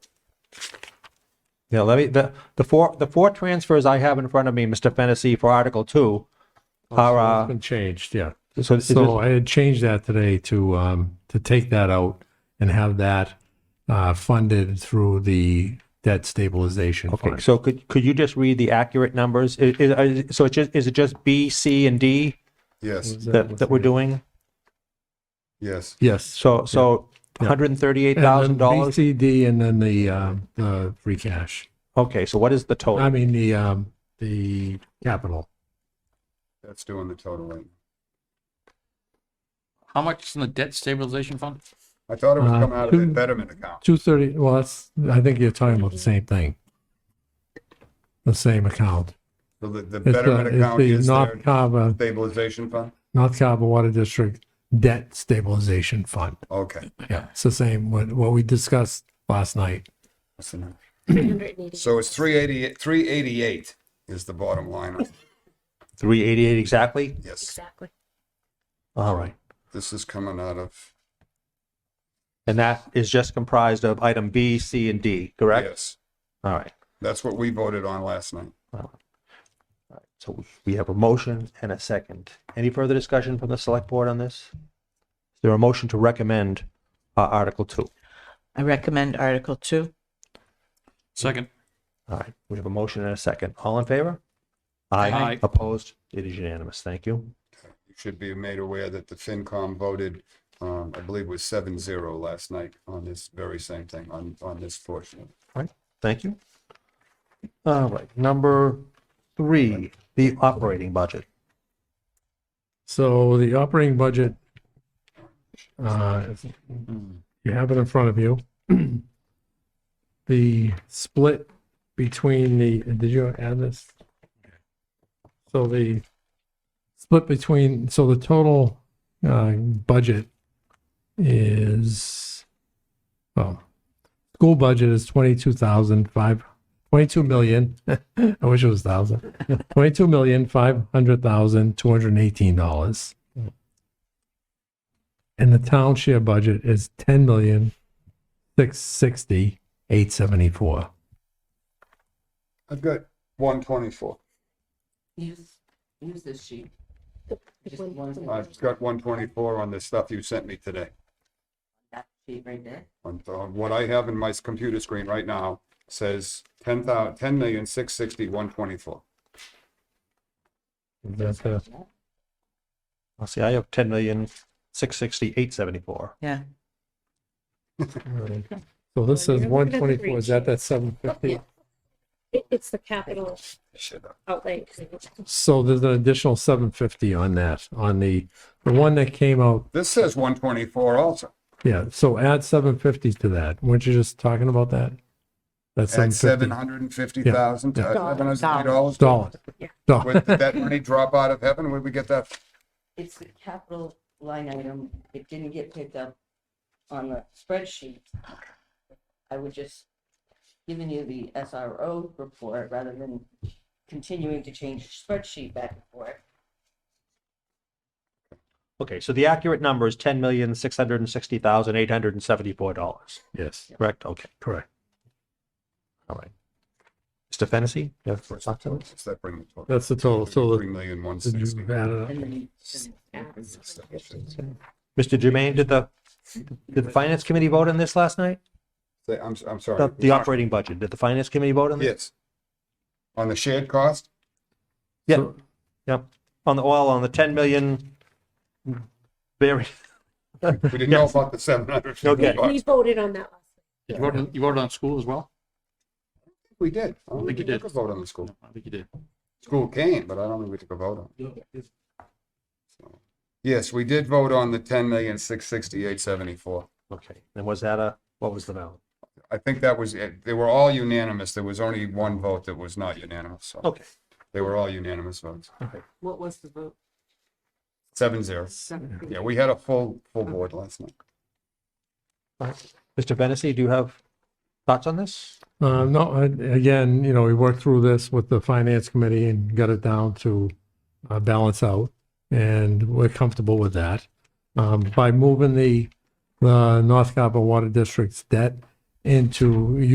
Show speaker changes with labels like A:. A: Yeah, let me, the, the four, the four transfers I have in front of me, Mr. Fennessy, for Article Two are,
B: It's
A: uh,
B: been changed, yeah.
A: so is
B: Oh, So
A: this-
B: I had changed that today to, um, to take that out and have that, uh, funded through the debt stabilization
A: okay,
B: fund.
A: so could, could you just read the accurate numbers? Is, is, is- so it's just, is it just B, C, and D
C: Yes,
A: that, that we're doing?
B: Mm-hmm.
C: yes.
B: Yes.
A: So, so
B: Yeah.
A: hundred and thirty-eight
B: And then
A: thousand dollars?
B: BCD and then the, um, the free cash.
A: Okay, so what is the
B: I
A: total?
B: mean, the, um, the capital.
C: That's doing the total right.
D: How much is in the debt stabilization fund?
C: I thought it was
B: Uh,
C: coming out of the
B: two-
C: betterment account.
B: Two thirty, well, that's, I think you're talking about the same thing. The same account.
C: So The, the
B: It's the,
C: betterment
B: it's
C: account
B: the
C: is their
B: North Carver,
C: stabilization fund?
B: North Carver Water District Debt Stabilization Fund.
C: Okay.
B: Yeah, it's the same, what, what we discussed last night.
C: That's enough. So it's three eighty, three eighty-eight is the bottom line.
A: Three eighty-eight exactly?
C: Yes,
E: Exactly.
A: All right.
C: this is coming out of,
A: And that is just comprised of item B, C, and D, correct?
C: yes.
A: All right.
C: That's what we voted on last night.
A: So we have a motion and a second. Any further discussion from the select board on this? Is there a motion to recommend uh, Article Two?
E: I recommend Article Two.
D: Second.
A: All right, we have a motion and a second. All in favor?
D: Aye.
A: Opposed? It is unanimous. Thank you.
C: You should be made aware that the FinCom voted, um, I believe it was seven zero last night on this very same thing, on, on this portion.
A: All right, thank you. All right, number three, the operating budget.
B: So the operating budget, uh, you have it in front of you. The split between the, did you add this? So the split between, so the total, uh, budget is, well, school budget is twenty-two thousand five, twenty-two million, I wish it was thousand. Twenty-two million, five hundred thousand, two hundred and eighteen dollars. And the town share budget is ten million, six sixty, eight seventy-four.
C: I've got one twenty-four.
F: Use, use this sheet. Just one
C: I've got one twenty-four on the stuff you sent me today.
F: that sheet right there.
C: on, on what I have in my computer screen right now says ten thousand, ten million, six sixty, one twenty-four.
A: I'll see, I have ten million, six sixty, eight seventy-four.
F: Yeah.
B: So this
G: Well,
B: is
G: you're looking at
B: one
G: the Oh,
B: twenty-four, is that that seven fifty?
G: It, it's the capital outlay.
B: So there's an additional seven fifty on that, on the, the one that came out,
C: This says one twenty-four also.
B: yeah, so add seven fifty to that. Weren't you just talking about that? That's
C: At seven
B: seven
C: hundred and fifty thousand, uh,
B: Yeah,
C: seven hundred and fifty dollars.
B: fifty dollars. Dollars.
C: Did that money drop out of heaven? Where'd we get that?
F: It's the capital line item. It didn't get picked up on the spreadsheet. I would just giving you the SRO report rather than continuing to change the spreadsheet back and forth.
A: Okay, so the accurate number is ten million, six hundred and sixty thousand, eight hundred and seventy-four dollars,
B: Yes,
A: correct? Okay,
B: correct.
A: all right. Mr. Fennessy? you have thoughts on this?
C: What's that bring the total?
B: That's the total, so
C: Three million, one
B: the,
C: sixty.
B: you've added up.
F: And then
A: Mr. Jermaine, did the, did the finance committee vote on this last night?
C: Say, I'm, I'm
A: The,
C: sorry.
A: the operating budget, did the finance committee vote on this?
C: Yes. On the shared cost?
A: Yeah, yeah, on the oil, on the ten million, very,
C: We didn't know about the seven hundred fifty
A: Okay.
G: We
C: bucks.
G: voted on that last.
D: You voted, you voted on school as well?
C: We did. I don't
D: think you
C: we
D: did.
C: took a vote on the school.
D: I think you did.
C: School came, but I don't think we took a vote on it. So, Yes, we did vote on the ten million, six sixty-eight, seventy-four.
A: okay, and was that a, what was the value?
C: I think that was it. They were all unanimous. There was only one vote that was not unanimous. So
A: Okay,
C: they were all unanimous votes.
F: What was the vote?
C: Seven zero. Yeah, we had a full, full board last night.
A: all right. Mr. Fennessy, do you have thoughts on this?
B: Uh, no, I- again, you know, we worked through this with the finance committee and got it down to uh, balance out, and we're comfortable with that. Um, uh, by moving the, the North Carver Water District's debt into